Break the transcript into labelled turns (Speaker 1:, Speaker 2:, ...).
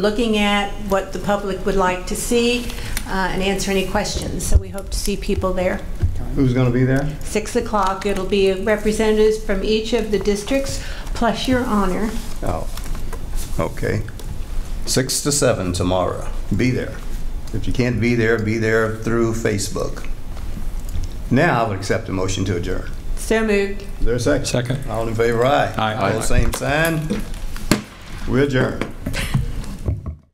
Speaker 1: looking at what the public would like to see uh, and answer any questions. So we hope to see people there.
Speaker 2: Who's going to be there?
Speaker 1: 6 o'clock, it'll be representatives from each of the districts, plus your honor.
Speaker 2: Oh, okay.
Speaker 3: Six to seven tomorrow.
Speaker 2: Be there. If you can't be there, be there through Facebook. Now I would accept a motion to adjourn.
Speaker 1: So moved.
Speaker 2: Is there a second?
Speaker 4: Second.
Speaker 2: All in favor, aye.
Speaker 4: Aye.
Speaker 2: All same sign. We adjourn.